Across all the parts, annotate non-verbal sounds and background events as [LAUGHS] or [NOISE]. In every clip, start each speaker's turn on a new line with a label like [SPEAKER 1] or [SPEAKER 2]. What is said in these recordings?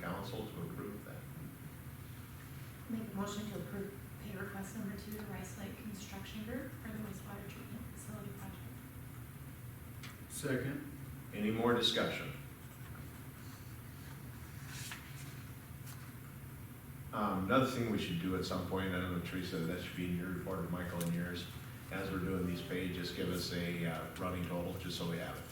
[SPEAKER 1] council to approve that.
[SPEAKER 2] Make a motion to approve pay request number two to Rice Lake Construction Group for the wastewater treatment facility project.
[SPEAKER 3] Second.
[SPEAKER 1] Any more discussion? Um, another thing we should do at some point, I don't know, Teresa, that should be in your report or Michael in yours, as we're doing these pages, just give us a, uh, running total, just so we have it.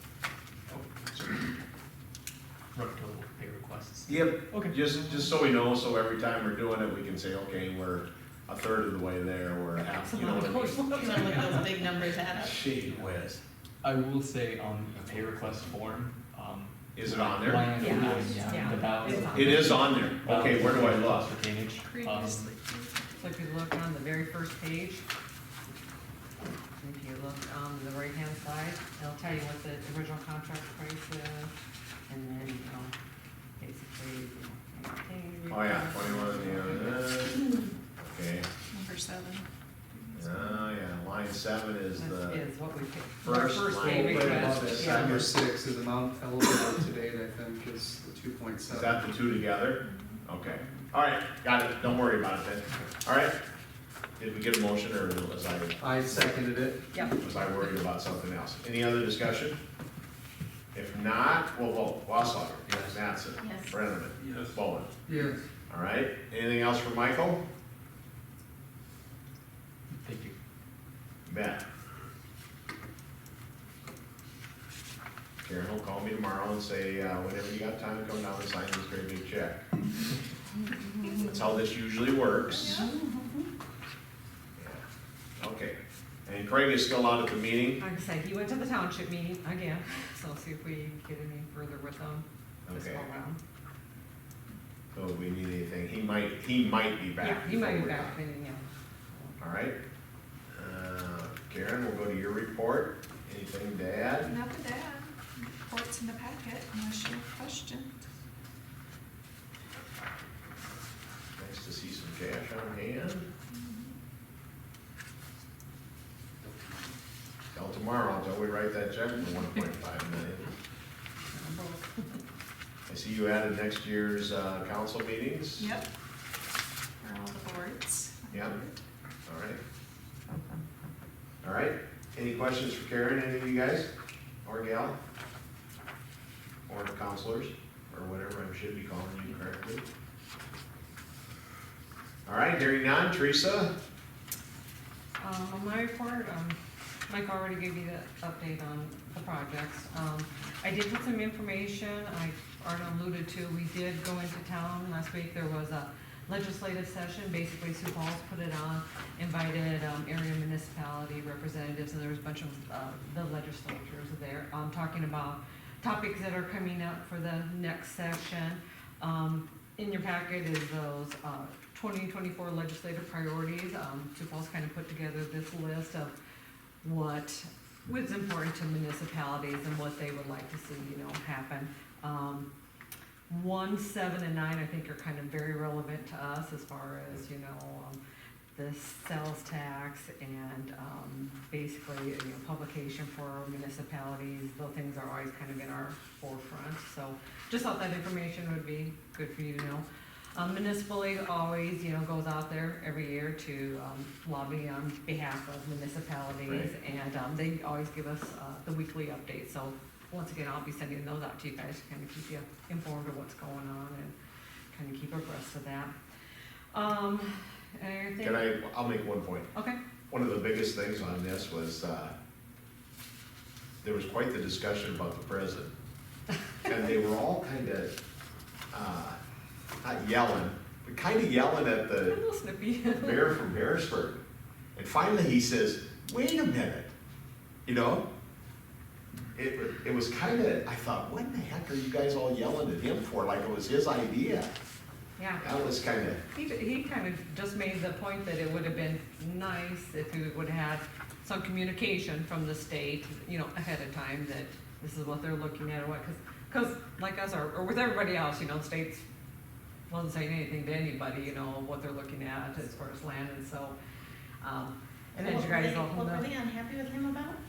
[SPEAKER 4] Run total pay requests.
[SPEAKER 1] Yep,
[SPEAKER 4] Okay.
[SPEAKER 1] Just, just so we know, so every time we're doing it, we can say, okay, we're a third of the way there, we're half, you know what I
[SPEAKER 5] [LAUGHS]
[SPEAKER 1] mean?
[SPEAKER 5] Some of those big numbers add up.
[SPEAKER 1] Gee whiz.
[SPEAKER 4] I will say on the pay request form, um.
[SPEAKER 1] Is it on there?
[SPEAKER 4] line item
[SPEAKER 5] Yeah,
[SPEAKER 4] is
[SPEAKER 5] yeah.
[SPEAKER 4] The balance.
[SPEAKER 5] It's on
[SPEAKER 1] It is on there.
[SPEAKER 4] balance
[SPEAKER 1] Okay, where do I look?
[SPEAKER 4] For drainage. Um,
[SPEAKER 2] Previously.
[SPEAKER 5] So if you look on the very first page, if you look on the right-hand side, it'll tell you what the original contract price is, and then, you know, basically, you know.
[SPEAKER 1] Oh, yeah, twenty-one, yeah, uh, okay.
[SPEAKER 2] Number seven.
[SPEAKER 1] Oh, yeah, line seven is
[SPEAKER 5] This
[SPEAKER 1] the,
[SPEAKER 5] is what we paid. Our
[SPEAKER 1] first
[SPEAKER 5] first
[SPEAKER 1] line.
[SPEAKER 5] pay
[SPEAKER 1] Right
[SPEAKER 3] Right above
[SPEAKER 5] request,
[SPEAKER 3] it,
[SPEAKER 5] yeah.
[SPEAKER 3] number six is amount eligible to date, I think, is the two point
[SPEAKER 1] is
[SPEAKER 3] seven.
[SPEAKER 1] that the two together? Okay, all right, got it, don't worry about it then. All right, did we get a motion or was I,
[SPEAKER 3] I seconded it.
[SPEAKER 5] Yep.
[SPEAKER 1] was I worried about something else? Any other discussion? If not, we'll vote. Wassler.
[SPEAKER 4] Yes.
[SPEAKER 1] Mattson.
[SPEAKER 2] Yes.
[SPEAKER 1] Brenneman.
[SPEAKER 3] Yes.
[SPEAKER 1] Bowen.
[SPEAKER 3] Yes.
[SPEAKER 1] All right, anything else for Michael?
[SPEAKER 4] Thank you.
[SPEAKER 1] Bet. Karen will call me tomorrow and say, uh, whenever you got time, come down and sign this great big check. That's how this usually works. Yeah. Okay, and Craig is still out at the meeting?
[SPEAKER 5] Like I said, he went to the township meeting again, [LAUGHS] so I'll see if we get any further with them this
[SPEAKER 1] Okay,
[SPEAKER 5] go around.
[SPEAKER 1] so if we need anything, he might, he might be back.
[SPEAKER 5] Yeah, he might be
[SPEAKER 1] before we're
[SPEAKER 5] back,
[SPEAKER 1] done.
[SPEAKER 5] then, yeah.
[SPEAKER 1] All right. Uh, Karen, we'll go to your report. Anything to add?
[SPEAKER 2] Not the dad. Reports in the packet unless you have questions.
[SPEAKER 1] Nice to see some cash on hand. Till tomorrow, until we write that check for one point five million. I see you added next year's, uh, council meetings?
[SPEAKER 2] Yep. For all the boards.
[SPEAKER 1] Yeah. All right. All right, any questions for Karen, any of you guys, or gal? Or the counselors, or whatever I should be calling you correctly? All right, hearing none, Teresa?
[SPEAKER 5] Um, on my report, um, Mike already gave you the update on the projects. Um, I did get some information, I already alluded to, we did go into town last week, there was a legislative session, basically Sioux Falls put it on, invited, um, area municipality representatives, and there was a bunch of, uh, the legislatures there, um, talking about topics that are coming up for the next session. Um, in your packet is those, uh, twenty twenty-four legislative priorities. Um, Sioux Falls kind of put together this list of what was important to municipalities and what they would like to see, you know, happen. Um, one, seven, and nine, I think are kind of very relevant to us as far as, you know, um, the sales tax and, um, basically, you know, publication for municipalities, those things are always kind of in our forefront, so just thought that information would be good for you to know. Um, municipal league always, you know, goes out there every year to, um, lobby on behalf of municipalities. And, um, they always give us, uh, the weekly update, so once again, I'll be sending those out to you guys to kind of keep you informed of what's going on and kind of keep abreast of that. Um, anything?
[SPEAKER 1] Can I, I'll make one point.
[SPEAKER 5] Okay,
[SPEAKER 1] One of the biggest things on this was, uh, there was quite the discussion about the president. And they were all kind of, uh, not yelling, but kind of yelling at
[SPEAKER 5] [LAUGHS] a
[SPEAKER 1] the
[SPEAKER 5] little snippy.
[SPEAKER 1] mayor from Harrisburg. And finally, he says, wait a minute, you know? It, it was kind of, I thought, what in the heck are you guys all yelling at him for? Like it was his idea.
[SPEAKER 5] Yeah.
[SPEAKER 1] That was kind of,
[SPEAKER 5] He, he kind of just made the point that it would have been nice if we would have had some communication from the state, you know, ahead of time that this is what they're looking at or what, cause, 'cause like us or, or with everybody else, you know, the states wasn't saying anything to anybody, you know, what they're looking at as far as land and so, um, and as you guys all know.
[SPEAKER 2] What were they unhappy with him about?